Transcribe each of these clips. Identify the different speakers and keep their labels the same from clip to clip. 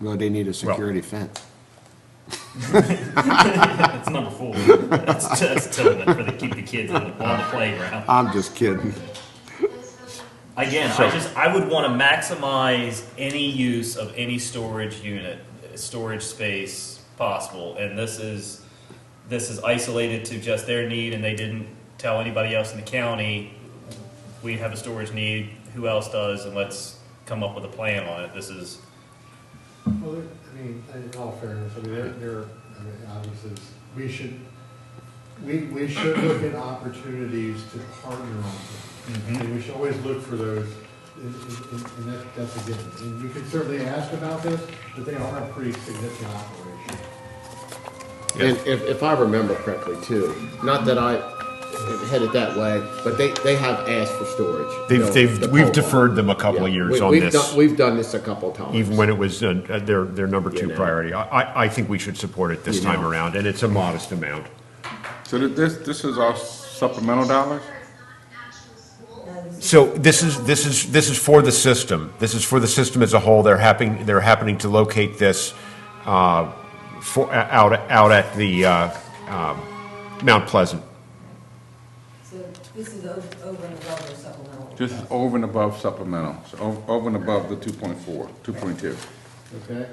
Speaker 1: Well, they need a security fence.
Speaker 2: That's number four. That's, that's telling it for the, keep the kids on the, on the playground.
Speaker 1: I'm just kidding.
Speaker 2: Again, I
Speaker 3: So-
Speaker 2: just, I would want to maximize any use of any storage unit, uh, storage space possible. And this is, this is isolated to just their need and they didn't tell anybody else in the county, we have a storage need, who else does, and let's come up with a plan on it. This is,
Speaker 4: Well, there- I mean, in all fairness, I mean, there, there, I mean, obviously, we should, we, we should look at opportunities to partner on things. And we should always look for those, and, and- and that, that's a given. And we can certainly ask about this, but they are a pretty significant operation.
Speaker 5: And if, if I remember correctly too, not that I headed that way, but they, they have asked for storage. you know,
Speaker 3: They've,
Speaker 5: the
Speaker 3: they've,
Speaker 5: pole
Speaker 3: we've
Speaker 5: barn.
Speaker 3: deferred them a couple of
Speaker 5: Yeah.
Speaker 3: years
Speaker 5: We-
Speaker 3: on
Speaker 5: we've
Speaker 3: this,
Speaker 5: done- We've done this a couple of times.
Speaker 3: even when it was uh, uh, their, their number
Speaker 5: You
Speaker 3: two
Speaker 5: know.
Speaker 3: priority. I, I, I think we should support it this
Speaker 5: You
Speaker 3: time
Speaker 5: know.
Speaker 3: around, and it's a modest amount.
Speaker 6: So thi- this, this is our supplemental dollars?
Speaker 3: So this is, this is, this is for the system. This is for the system as a whole. They're happening, they're happening to locate this uh, for, out, out at the uh, um, Mount Pleasant.
Speaker 7: So this is o- over and above their supplemental.
Speaker 6: This is over and above supplemental, so o- over and above the 2.4, 2.2.
Speaker 4: Okay?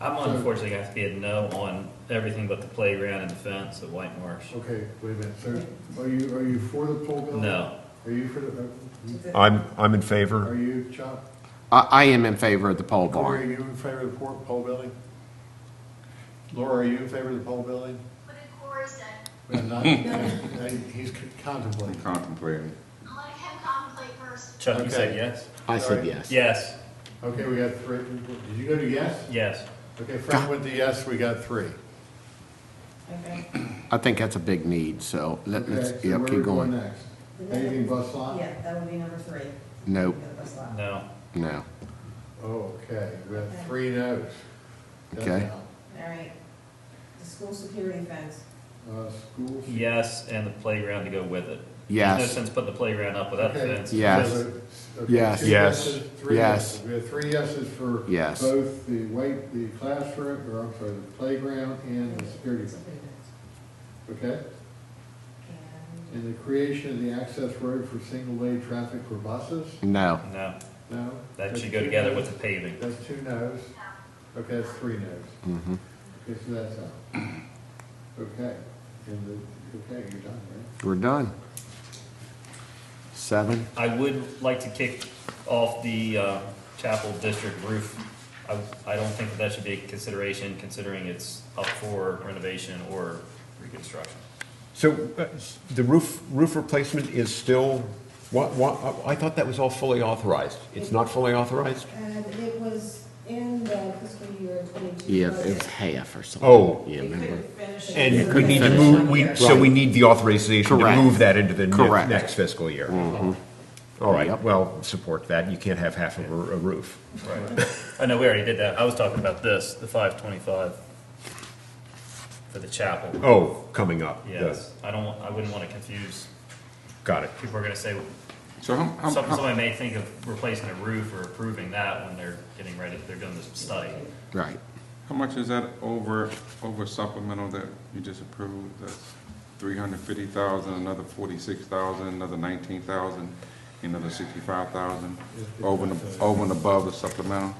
Speaker 2: I'm unfortunately going to have to be a no on everything but the playground and the fence at White Marsh.
Speaker 4: Okay, wait a minute, so are you, are you for the pole building?
Speaker 2: No.
Speaker 4: Are you for the, uh,
Speaker 3: I'm, I'm in
Speaker 4: are
Speaker 3: favor.
Speaker 4: you, Chuck,
Speaker 1: I, I am in favor of the pole
Speaker 4: Corey, are
Speaker 1: barn.
Speaker 4: you in favor of the por- pole building? Laura, are you in favor of the pole building?
Speaker 8: What did Corey say?
Speaker 4: Well, not- I- He's contemplating.
Speaker 6: Contemplating.
Speaker 8: I'll let him contemplate first.
Speaker 2: Chuck, you said
Speaker 4: Okay.
Speaker 2: yes?
Speaker 5: I said
Speaker 4: Sorry.
Speaker 5: yes.
Speaker 2: Yes,
Speaker 4: Okay, we got three. Did you go to yes?
Speaker 2: yes.
Speaker 4: Okay, Frank went to yes, we got three.
Speaker 7: Okay.
Speaker 1: I think that's a big need, so let, let's,
Speaker 4: Okay, so
Speaker 1: yeah,
Speaker 4: where we
Speaker 1: keep going.
Speaker 4: next? Anything bus lot?
Speaker 7: Yeah, that would be number three.
Speaker 1: Nope,
Speaker 7: The bus lot.
Speaker 2: No.
Speaker 1: no.
Speaker 4: Oh, okay, we have three no's. That's
Speaker 1: Okay.
Speaker 4: out.
Speaker 7: All right. The school security fence.
Speaker 4: Uh, schools.
Speaker 2: Yes, and the playground to go with it. There's
Speaker 1: Yes.
Speaker 2: no sense putting the playground up without the
Speaker 4: Okay,
Speaker 2: fence.
Speaker 1: Yes.
Speaker 4: so the- okay,
Speaker 1: Yes.
Speaker 4: two
Speaker 3: Yes.
Speaker 4: yeses, Three
Speaker 1: Yes.
Speaker 4: yeses. We have three yeses for
Speaker 1: Yes.
Speaker 4: both the weight, the classroom, or I'm sorry, the playground and the security, fence.
Speaker 7: Security fence.
Speaker 4: okay?
Speaker 7: And
Speaker 4: And the creation of the access road for single-way traffic for buses,
Speaker 1: No,
Speaker 2: No,
Speaker 4: no?
Speaker 2: that
Speaker 4: That's
Speaker 2: should go
Speaker 4: two
Speaker 2: together
Speaker 4: no's.
Speaker 2: with the paving.
Speaker 4: That's two no's. Okay, that's three no's. Okay, so that's out. Okay, and the, okay, you're done, right?
Speaker 1: we're done. Seven,
Speaker 2: I would like to kick off the uh, Chapel District roof. I, I don't think that that should be a consideration considering it's up for renovation or reconstruction.
Speaker 3: So uh, s- the roof, roof replacement is still, what, what, I thought that was all fully authorized. It's not fully authorized?
Speaker 7: And it was in the fiscal year twenty-two.
Speaker 1: yeah,
Speaker 7: budget.
Speaker 1: it was half or something.
Speaker 3: Oh.
Speaker 1: Yeah,
Speaker 7: They
Speaker 1: remember?
Speaker 7: couldn't finish it.
Speaker 3: And
Speaker 7: because
Speaker 3: we
Speaker 7: of
Speaker 3: need to
Speaker 7: the
Speaker 3: move, we,
Speaker 7: year.
Speaker 3: so we need the authorization to
Speaker 1: Correct.
Speaker 3: move that into the ne-
Speaker 1: Correct. Mm-hmm.
Speaker 3: next fiscal year. All right,
Speaker 1: Yep.
Speaker 3: well, support that. You can't have half of a a roof.
Speaker 2: Right. I know, we already did that. I was talking about this, the five twenty-five for the chapel.
Speaker 3: Oh, coming up.
Speaker 2: Yes, I don't, want- I wouldn't want to confuse.
Speaker 3: Got it.
Speaker 2: People are going to say,
Speaker 6: So how, how-
Speaker 2: Some-
Speaker 6: how,
Speaker 2: Somebody may think of replacing a roof or approving that when they're getting ready, they're doing this study.
Speaker 1: Right.
Speaker 6: how much is that over, over supplemental that you just approved? That's 350,000, another 46,000, another 19,000, another 65,000, over and, ab- over and above the supplemental?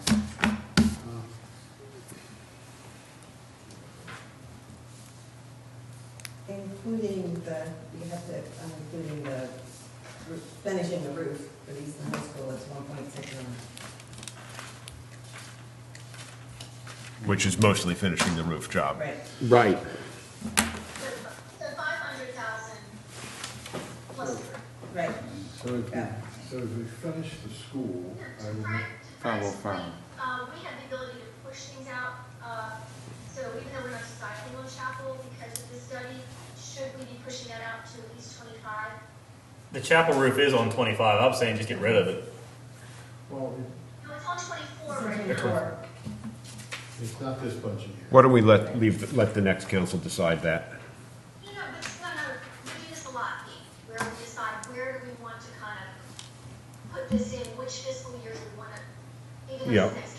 Speaker 7: Including the, you have to, I'm including the, roo- finishing the roof for Easton High School, it's one point six million.
Speaker 3: Which is mostly finishing the roof job.
Speaker 7: Right.
Speaker 1: Right,
Speaker 8: So five hundred thousand plus three.
Speaker 7: Right.
Speaker 4: So if we,
Speaker 7: Yeah.
Speaker 4: so if we finish the school, I would,
Speaker 8: Frank-
Speaker 4: make-
Speaker 8: Frank's
Speaker 6: 505.
Speaker 8: point, uh, oh we have the ability to push things out, uh, so even though we're not deciding on chapel because of this study, should we be pushing that out to at least twenty-five?
Speaker 2: The chapel roof is on twenty-five, I'm saying just get rid of it.
Speaker 4: well,
Speaker 8: No, it's on twenty-four right now.
Speaker 7: Twenty-four.
Speaker 4: it's not this budget year.
Speaker 3: Why don't we let, leave, let the next council decide that?
Speaker 8: No, no, but, no, no, we do this a lot, where we decide where do we want to kind of put this in, which fiscal years we want to, even though
Speaker 3: Yeah.
Speaker 8: it's next